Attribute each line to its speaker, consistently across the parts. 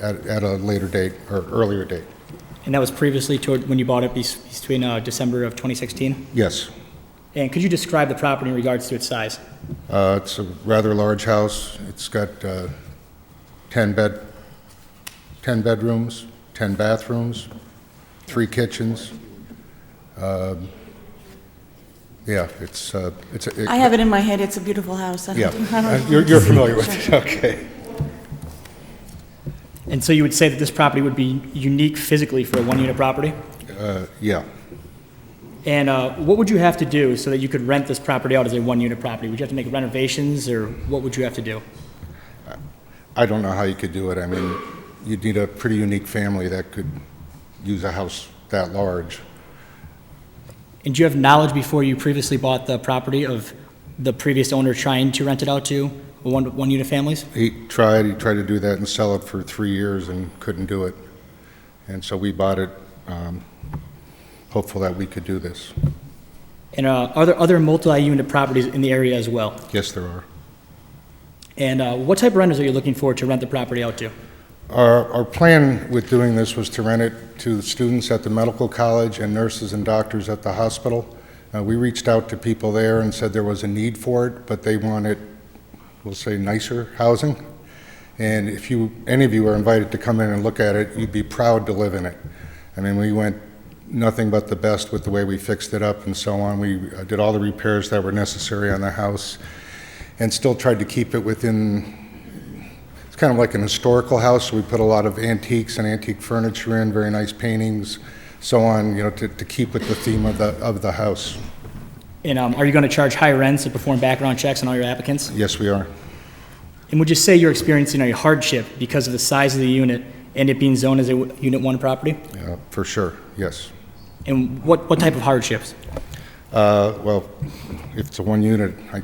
Speaker 1: at, at a later date or earlier date.
Speaker 2: And that was previously toward, when you bought it bes- between uh, December of 2016?
Speaker 1: Yes.
Speaker 2: And could you describe the property in regards to its size?
Speaker 1: Uh, It's a rather large house. It's got uh, 10 bed, 10 bedrooms, 10 bathrooms, three kitchens. Um, Yeah, it's, uh, it's. a- it-
Speaker 3: I have it in my head, it's a beautiful house. I don't-
Speaker 1: Yeah,
Speaker 3: I don't
Speaker 1: Uh,
Speaker 3: know.
Speaker 1: you're you're familiar with it, okay.
Speaker 2: And so you would say that this property would be unique physically for a one-unit property?
Speaker 1: Uh, Yeah.
Speaker 2: And uh, what would you have to do so that you could rent this property out as a one-unit property? Would you have to make renovations, or what would you have to do?
Speaker 1: I don't know how you could do it. I mean, you'd need a pretty unique family that could use a house that large.
Speaker 2: And do you have knowledge before you previously bought the property of the previous owner trying to rent it out to one- one-unit families?
Speaker 1: He tried, he tried to do that and sell it for three years and couldn't do it. And so we bought it, um, hopeful that we could do this.
Speaker 2: And uh, are there other multi-unit properties in the area as well?
Speaker 1: Yes, there are.
Speaker 2: And uh, what type of renters are you looking for to rent the property out to?
Speaker 1: Our, our plan with doing this was to rent it to students at the medical college and nurses and doctors at the hospital. Uh, we reached out to people there and said there was a need for it, but they wanted, we'll say nicer housing. And if you, any of you are invited to come in and look at it, you'd be proud to live in it. I mean, we went nothing but the best with the way we fixed it up and so on. We uh, did all the repairs that were necessary on the house and still tried to keep it within it's kind of like an historical house. We put a lot of antiques and antique furniture in, very nice paintings, so on, you know, to, to keep with the theme of the, of the house.
Speaker 2: And um, are you going to charge high rents and perform background checks on all your applicants?
Speaker 1: Yes, we are.
Speaker 2: And would you say you're experiencing a hardship because of the size of the unit and it being zoned as a w- Unit 1 property?
Speaker 1: Yeah, for sure, yes.
Speaker 2: And what, what type of hardships?
Speaker 1: Uh, well, if it's a one unit, I,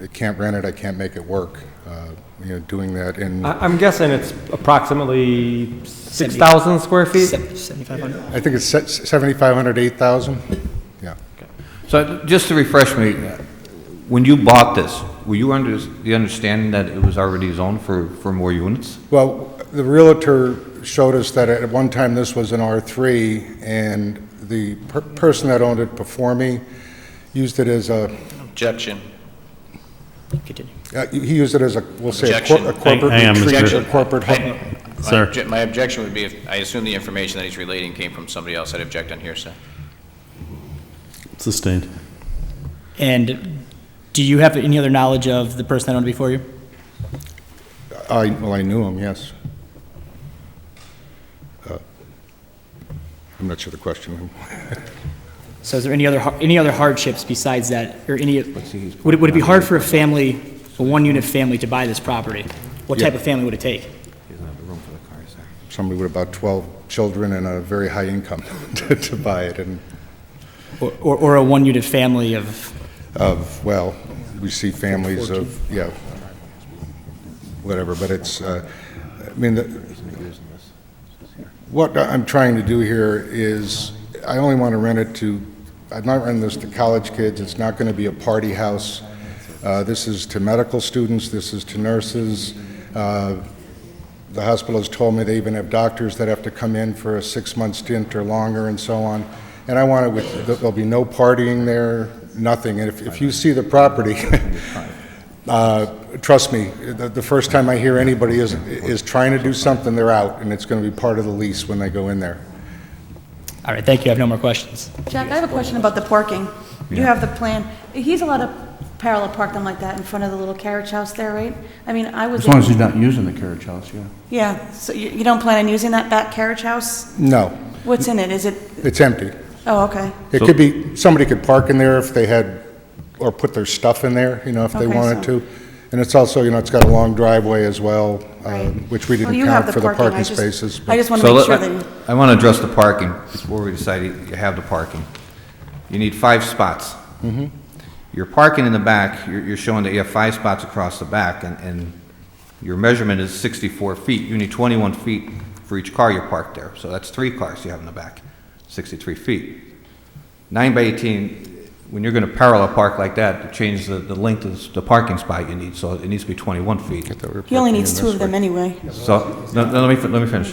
Speaker 1: I can't rent it, I can't make it work. Uh, you know, doing that in,
Speaker 4: I- I'm guessing it's approximately 6,000 square feet?
Speaker 2: Sev- 7,500?
Speaker 1: I think it's se- 7,500, 8,000? Yeah.
Speaker 5: So just to refresh me, when you bought this, were you under the understanding that it was already zoned for, for more units?
Speaker 1: Well, the Realtor showed us that at one time this was an R3, and the per- person that owned it before me used it as a,
Speaker 6: Objection.
Speaker 2: Continue.
Speaker 1: Uh, He used it as a, we'll say, a cor- a
Speaker 6: Objection.
Speaker 1: corporate
Speaker 7: Hang- hang on, Mr.
Speaker 1: retreat, a
Speaker 7: Objection.
Speaker 1: corporate home.
Speaker 6: I- my
Speaker 7: Sir.
Speaker 6: obje- My objection would be if, I assume the information that he's relating came from somebody else. I'd object on hearsay.
Speaker 7: Sustained.
Speaker 2: And do you have any other knowledge of the person that owned it before you?
Speaker 1: I, well, I knew him, yes. Uh, I'm not sure the question.
Speaker 2: So is there any other, har- any other hardships besides that, or any, would it, would it be hard for a family, a one-unit family to buy this property? What
Speaker 1: Yeah.
Speaker 2: type of family would it take?
Speaker 1: Somebody with about 12 children and a very high income to to buy it, and
Speaker 2: Or, or- or a one-unit family of,
Speaker 1: of, well, we see families of, yeah, whatever, but it's, uh, I mean, the- what I'm trying to do here is, I only want to rent it to, I'm not renting this to college kids, it's not going to be a party house. Uh, This is to medical students, this is to nurses. Uh, The hospital has told me they even have doctors that have to come in for a six-month stint or longer and so on. And I want it with, there'll be no partying there, nothing. And if, if you see the property, uh, trust me, the, the first time I hear anybody is, is trying to do something, they're out, and it's going to be part of the lease when they go in there.
Speaker 2: all right, thank you, I have no more questions.
Speaker 3: Jack, I have a question about the parking. You have the plan. He's allowed to parallel park them like that in front of the little carriage house there, right? I mean, I was...
Speaker 8: As long as he's not using the carriage house, yeah.
Speaker 3: Yeah, so you you don't plan on using that back carriage house?
Speaker 1: No,
Speaker 3: What's in it? Is it,
Speaker 1: it's empty.
Speaker 3: oh, okay.
Speaker 1: It could be, somebody could park in there if they had, or put their stuff in there, you know, if they
Speaker 3: Okay,
Speaker 1: wanted
Speaker 3: so-
Speaker 1: to. And it's also, you know, it's got a long driveway as well,
Speaker 3: Right.
Speaker 1: um, which we
Speaker 3: Well,
Speaker 1: didn't
Speaker 3: you have
Speaker 1: count for the
Speaker 3: I
Speaker 1: parking
Speaker 3: just-
Speaker 1: spaces. but-
Speaker 3: I just want
Speaker 5: So
Speaker 3: to make
Speaker 5: let-
Speaker 3: sure that, you-
Speaker 5: I want to address the parking before we decide you you have the parking. You need five spots. You're parking in the back, you're, you're showing that you have five spots across the back, and, and your measurement is 64 feet. You need 21 feet for each car you park there, so that's three cars you have in the back, 63 feet. Nine by 18 when you're going to parallel park like that, change the, the length of the parking spot you need, so it needs to be 21 feet.
Speaker 3: He only needs two of them anyway.
Speaker 5: So, no, no, let me, fin- let me finish.